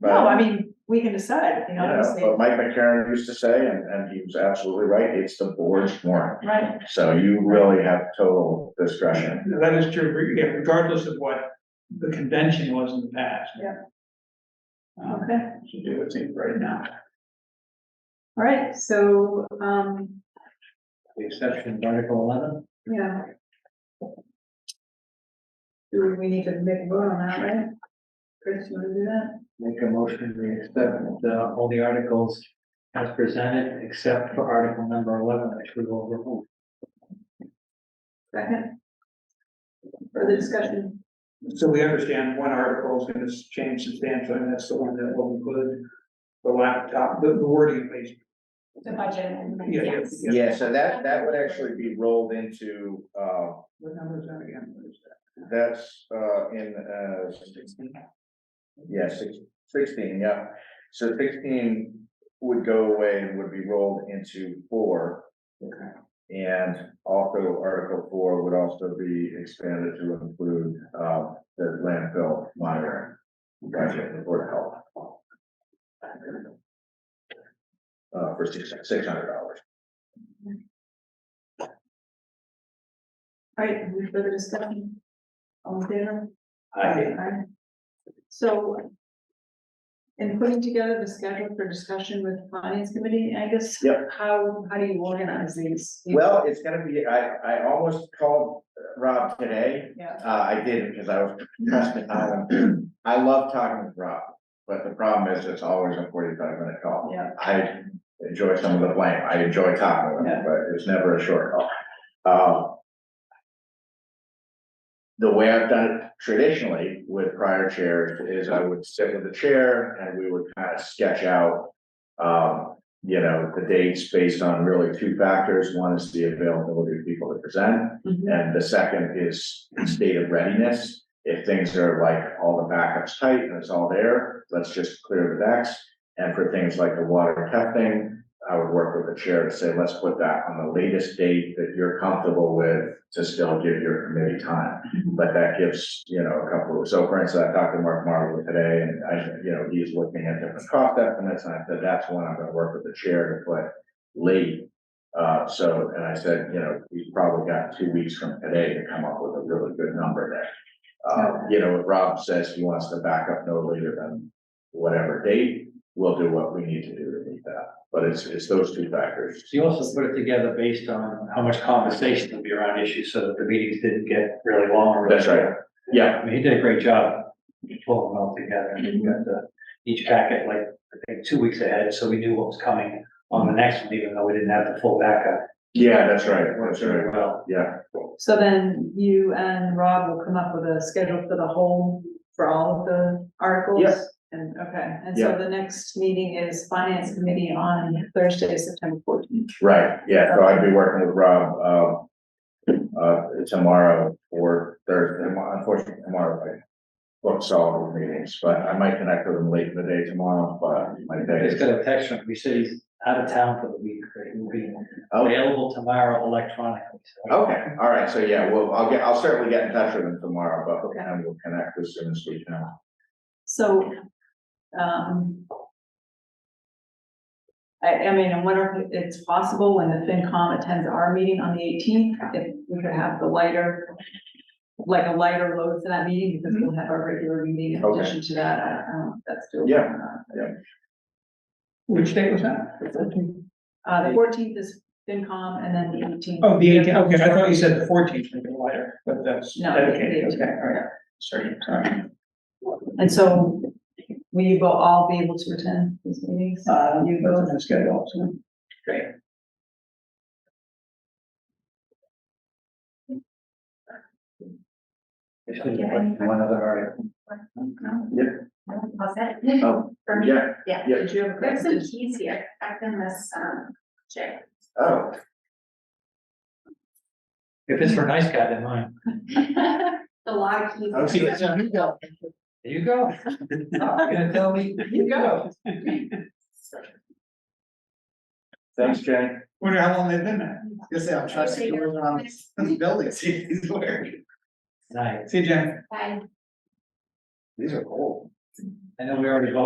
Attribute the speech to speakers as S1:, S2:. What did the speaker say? S1: No, I
S2: But-
S1: mean, we can decide, you know,
S2: Yeah,
S1: obviously,
S2: but Mike McCarron used to say, and, and he was absolutely right, it's the board's warrant.
S1: right?
S2: So you really have total discretion.
S3: That is true, re- yeah, regardless of what the convention was in the past.
S1: Yeah.
S3: Um,
S1: Okay,
S3: To do it right now,
S1: all right, so, um,
S4: The exception of Article eleven,
S1: yeah. Do we need to make a vote on that, right? Chris, you wanna do that?
S4: make a motion to accept uh, all the articles as presented, except for Article number eleven, which we will remove.
S1: Second? Further discussion?
S3: so we understand one article is gonna change substantially, and that's the one that will include the laptop, the the wording, please.
S5: The budget.
S3: Yeah, yeah, yeah.
S2: Yeah, so that, that would actually be rolled into, uh,
S3: What number is that again? What is that?
S2: that's, uh, in, uh, yeah, six- sixteen, yeah. So sixteen would go away and would be rolled into four.
S3: Okay.
S2: And also Article four would also be expanded to include, uh, the landfill monitoring. Budget and board of health. Uh, for six, six hundred dollars.
S1: All right, any further discussion? All in favor?
S3: Aye.
S1: Aye. So, in putting together the schedule for discussion with finance committee, I guess.
S2: Yep.
S1: How, how do you organize these?
S2: Well, it's gonna be, I, I almost called Rob today,
S1: Yeah,
S2: Uh, I did because I was, trust me, Alan, I love talking with Rob, but the problem is it's always a forty-five minute call.
S1: yeah,
S2: I enjoy some of the blame, I enjoy talking with him, but it's never a short call. Um, The way I've done it traditionally with prior chairs is I would sit with the chair and we would kind of sketch out, um, you know, the dates based on really two factors. One is the availability of people to present.
S1: mhm,
S2: And the second is state of readiness. If things are like all the backups tight and it's all there, let's just clear the decks. And for things like the water testing, I would work with the chair to say, let's put that on the latest date that you're comfortable with to still give your committee time. But that gives, you know, a couple of, so for instance, I talked to Mark Marlowe today and I, you know, he's looking at different cost estimates and I said, that's one I'm gonna work with the chair to put late uh, so, and I said, you know, we've probably got two weeks from today to come up with a really good number there. Uh, you know, if Rob says he wants to back up no later than whatever date, we'll do what we need to do to meet that. But it's, it's those two factors.
S4: So you also put it together based on how much conversation there'll be around issues, so that the meetings didn't get really long. or really
S2: That's right. Yeah,
S4: I mean, he did a great job pulling them all together, and he got the, each packet like, I think, two weeks ahead, so we knew what was coming on the next one, even though we didn't have the full backup.
S2: yeah, that's right.
S4: It worked
S2: That's
S4: very
S2: right.
S4: well.
S2: Yeah,
S1: so then you and Rob will come up with a schedule for the whole, for all of the articles?
S2: Yes.
S1: And, okay, and so
S2: Yeah.
S1: the next meeting is finance committee on Thursday, September fourteenth.
S2: right. Yeah, so I'd be working with Rob, uh, uh, tomorrow or Thursday, unfortunately tomorrow. I booked solid meetings, but I might connect with him late in the day tomorrow, but my
S4: I
S2: day
S4: just
S2: is.
S4: got a text from, him. he said he's out of town for the week, but he will be
S2: Oh.
S4: available tomorrow electronically, so.
S2: Okay, all right, so yeah, well, I'll get, I'll certainly get in touch with him tomorrow, but and we'll connect as soon as we can.
S1: So, um. I, I mean, I wonder if it's possible when the FinCom attends our meeting on the eighteenth, if we could have the lighter. Like a lighter load for that meeting, because we'll have our regular meeting in
S2: Okay.
S1: addition to that, I don't know if that's doable.
S2: Yeah,
S3: Which date was that?
S1: Uh, the fourteenth is FinCom and then the eighteenth.
S3: Oh, the eighteenth, okay, I thought you said the fourteenth, maybe later, but that's.
S1: No, the
S3: Okay,
S1: 18th.
S3: okay, all right, sorry, sorry.
S1: And so, will you bo- all be able to attend these meetings?
S3: Uh,
S1: You
S3: that's
S1: both?
S3: on the schedule, so.
S4: It's gonna be like One other article.
S5: No,
S2: yeah,
S5: how's that?
S2: oh,
S5: For me,
S2: yeah,
S5: yeah.
S2: yeah,
S1: Did you have a
S5: There's some
S1: question?
S5: keys here, back in this, um, chair.
S2: oh,
S4: If it's for a nice guy, then mine.
S5: The lock keys.
S2: I was gonna
S4: There you go. You're gonna tell me, you go.
S2: thanks, Jenny.
S3: Wonder how long they've been there?
S6: Just say I'm trying to get around this building, see these where.
S4: Nice.
S2: um,
S3: See you, Jen.
S5: Bye.
S6: These are old.
S4: I know we already voted